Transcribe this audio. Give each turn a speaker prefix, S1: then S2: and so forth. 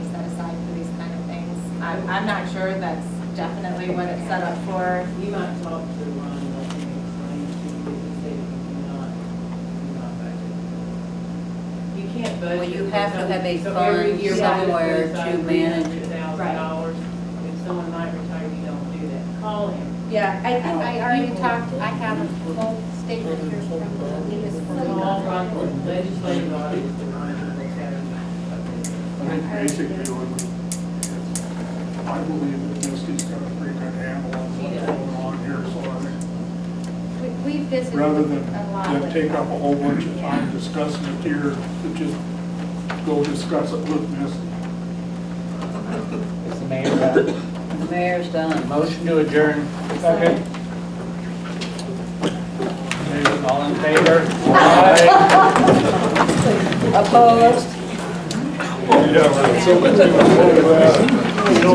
S1: I'm, I'm not sure that's definitely what it's set up for.
S2: You might talk to Ron, let him explain to you if they cannot, cannot budget. You can't budget.
S3: Well, you have to
S2: for
S3: have a
S2: something- so every
S3: fund
S2: year we have
S3: somewhere
S2: set aside
S3: to manage it.
S2: $300,000. If someone might retire, you don't do that. Call him.
S1: Yeah,
S4: I think I already talked, I have a whole statement here from the municipal.
S2: Call Ron, legislative body is the Ron will tell
S5: I think basically, what we- I believe that Misty's got a pretty good handle on what's going on here, so I think,
S4: We we visited
S5: rather than,
S4: a lot
S5: than
S4: with
S5: take up a
S4: them.
S5: whole bunch of time discussing it here, to just go discuss it with Misty.
S6: Is the mayor done?
S3: The mayor's done.
S6: Motion to adjourn. Second. All in favor? Aye.
S3: Opposed?
S5: Yeah, right. So let's do a